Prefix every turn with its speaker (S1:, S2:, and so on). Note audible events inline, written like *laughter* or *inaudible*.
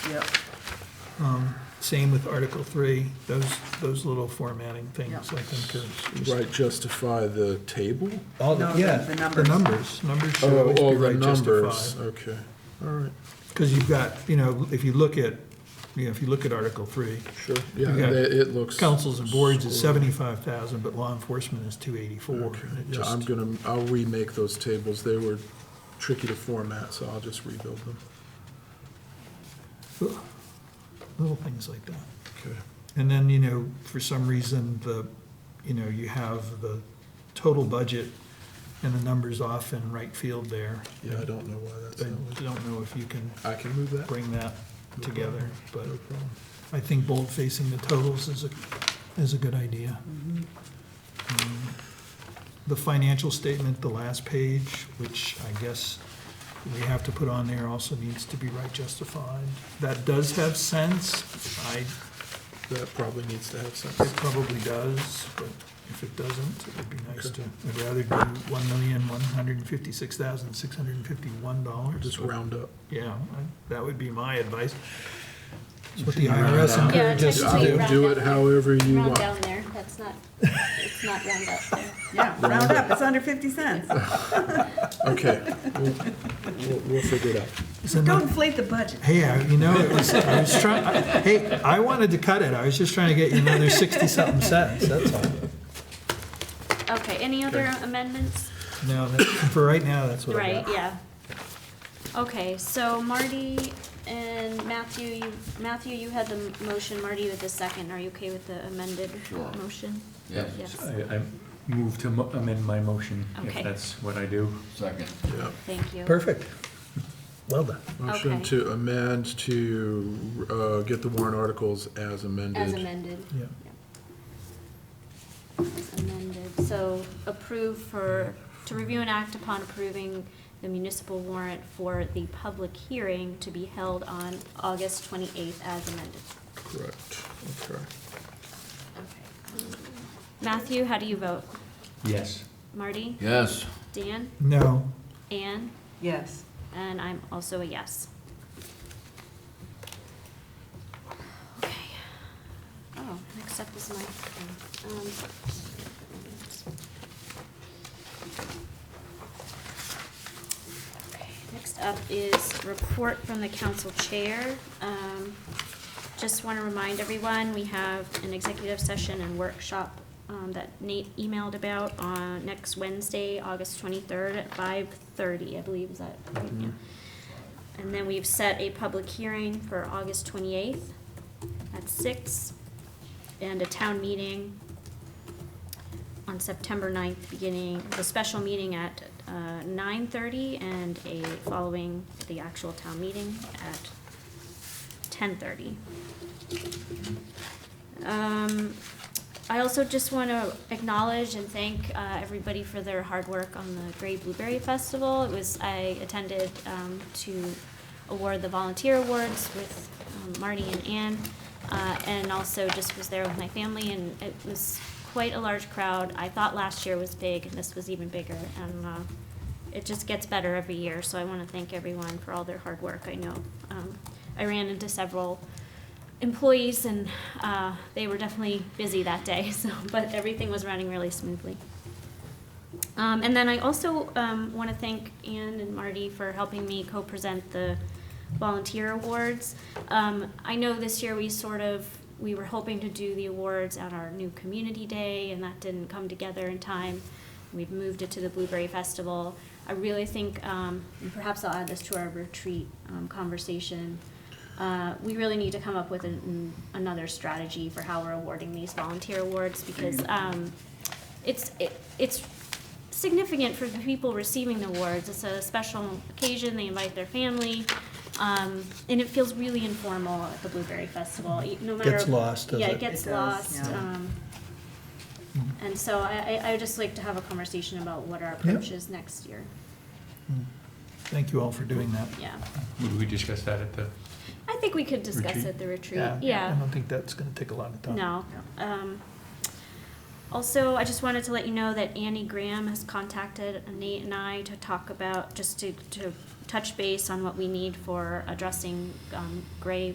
S1: Yep,
S2: Same with Article 3, those, those little formatting things, I think, are just...
S3: Right, justify the table?
S2: All the,
S1: No,
S2: yeah,
S1: the- the
S2: the
S1: numbers.
S2: numbers, numbers should
S3: Oh,
S2: always
S3: all
S2: be
S3: the
S2: right
S3: numbers,
S2: justified.
S3: okay, all right,
S2: Because you've got, you know, if you look at, you know, if you look at Article 3,
S3: sure, yeah,
S2: Okay.
S3: that- it looks.
S2: councils and boards is
S3: scored.
S2: 75,000, but law enforcement is 284.
S3: Okay,
S2: and it
S3: yeah,
S2: just-
S3: I'm gonna, I'll remake those tables, they were tricky to format, so I'll just rebuild them.
S2: ugh, Little things like that.
S3: Okay,
S2: And then, you know, for some reason, the, you know, you have the total budget and the numbers off in right field there.
S3: yeah, I don't know why that's
S2: I
S3: that way.
S2: don't know if you can
S3: I can move that,
S2: bring that together, but
S3: no problem.
S2: I think bold facing the totals is a, is a good idea. Um, The financial statement, the last page, which I guess we have to put on there, also needs to be right justified. That does have sense, I,
S3: That probably needs to have
S2: it
S3: something.
S2: probably does, but if it doesn't, it would be nice to,
S3: Okay.
S2: I'd rather do one million, one hundred and fifty-six thousand, six hundred and fifty-one dollars.
S3: Just round up.
S2: Yeah, I- that would be my advice. It's what the
S3: Yeah,
S2: IRS
S3: I-
S2: encourages us to
S3: I
S2: do.
S3: will do it however you
S4: Round
S3: want.
S4: down there, that's not,
S3: *laughs*
S4: it's not round up there.
S1: yeah, round up, it's under fifty cents.
S3: Okay, we'll, we'll- we'll figure it out.
S2: It's a
S1: Go
S2: no-
S1: inflate the budget.
S2: Hey, I- you know, it was, I was trying, hey, I wanted to cut it, I was just trying to get you another sixty-something cents, that's all.
S4: Okay, any other amendments?
S2: No, that- for right now, that's what I
S4: Right,
S2: got.
S4: yeah. Okay, so Marty and Matthew, you, Matthew, you had the m- motion, Marty with the second. Are you okay with the amended motion?
S5: Yes.
S4: Yes,
S6: I, I move to mo- amend my motion, if
S4: Okay.
S6: that's what I do.
S5: Second.
S3: Yeah.
S4: thank you.
S2: Perfect. Well done.
S3: Motion
S4: Okay.
S3: to amend to uh, get the warrant articles as amended.
S4: As amended,
S2: Yeah.
S4: as amended. So approve for, to review and act upon approving the municipal warrant for the public hearing to be held on August twenty-eighth as amended.
S3: Correct, okay.
S4: Matthew, how do you vote?
S6: Yes.
S4: Marty?
S5: Yes.
S4: Dan?
S2: No,
S4: Anne?
S1: Yes,
S4: And I'm also a yes. Okay. Oh, next up is my thing. Um, Okay, next up is report from the council chair. Um, Just want to remind everyone, we have an executive session and workshop um, that Nate emailed about on next Wednesday, August twenty-third at five-thirty, I believe, is that? right? Yeah. And then we've set a public hearing for August twenty-eighth at six, and a town meeting on September 9th, beginning, the special meeting at uh, 9:30 and a following the actual town meeting at 10:30. Um, I also just want to acknowledge and thank uh, everybody for their hard work on the Gray Blueberry Festival. It was, I attended um, to award the volunteer awards with um, Marty and Ann, uh, and also just was there with my family, and it was quite a large crowd. I thought last year was big, and this was even bigger, and uh, it just gets better every year, so I want to thank everyone for all their hard work, I know. Um, I ran into several employees and uh, they were definitely busy that day *laughs* so but everything was running really smoothly um, and then i also um, want to thank anne and marty for helping me co-present the volunteer awards um, i know this year we sort of we were hoping to do the awards at our new community day and that didn't come together in time we've moved it to the blueberry festival i really think um, and perhaps i'll add this to our retreat um, conversation uh, we really need to come up with an, another strategy for how we're awarding these volunteer awards because
S1: Mm-hmm.
S4: um, it's it, it's significant for the people receiving the awards. It's a special occasion. They invite their family, um, and it feels really informal at the Blueberry Festival. e- No matter
S2: Gets lost, does
S4: yeah,
S2: it? Mm,
S4: it gets
S1: Mm-hmm. It does,
S4: lost.
S1: yeah.
S4: Um, and so I, I, I would just like to have a conversation about what our approach is next year.
S2: mm. thank you all for doing that.
S4: Yeah,
S6: Would we discuss that at the,
S4: I think we could discuss
S6: Retreat?
S4: at the retreat.
S2: I don't think that's gonna take a lot of time.
S4: No. Um, Also, I just wanted to let you know that Annie Graham has contacted Nate and I to talk about, just to, to touch base on what we need for addressing um, gray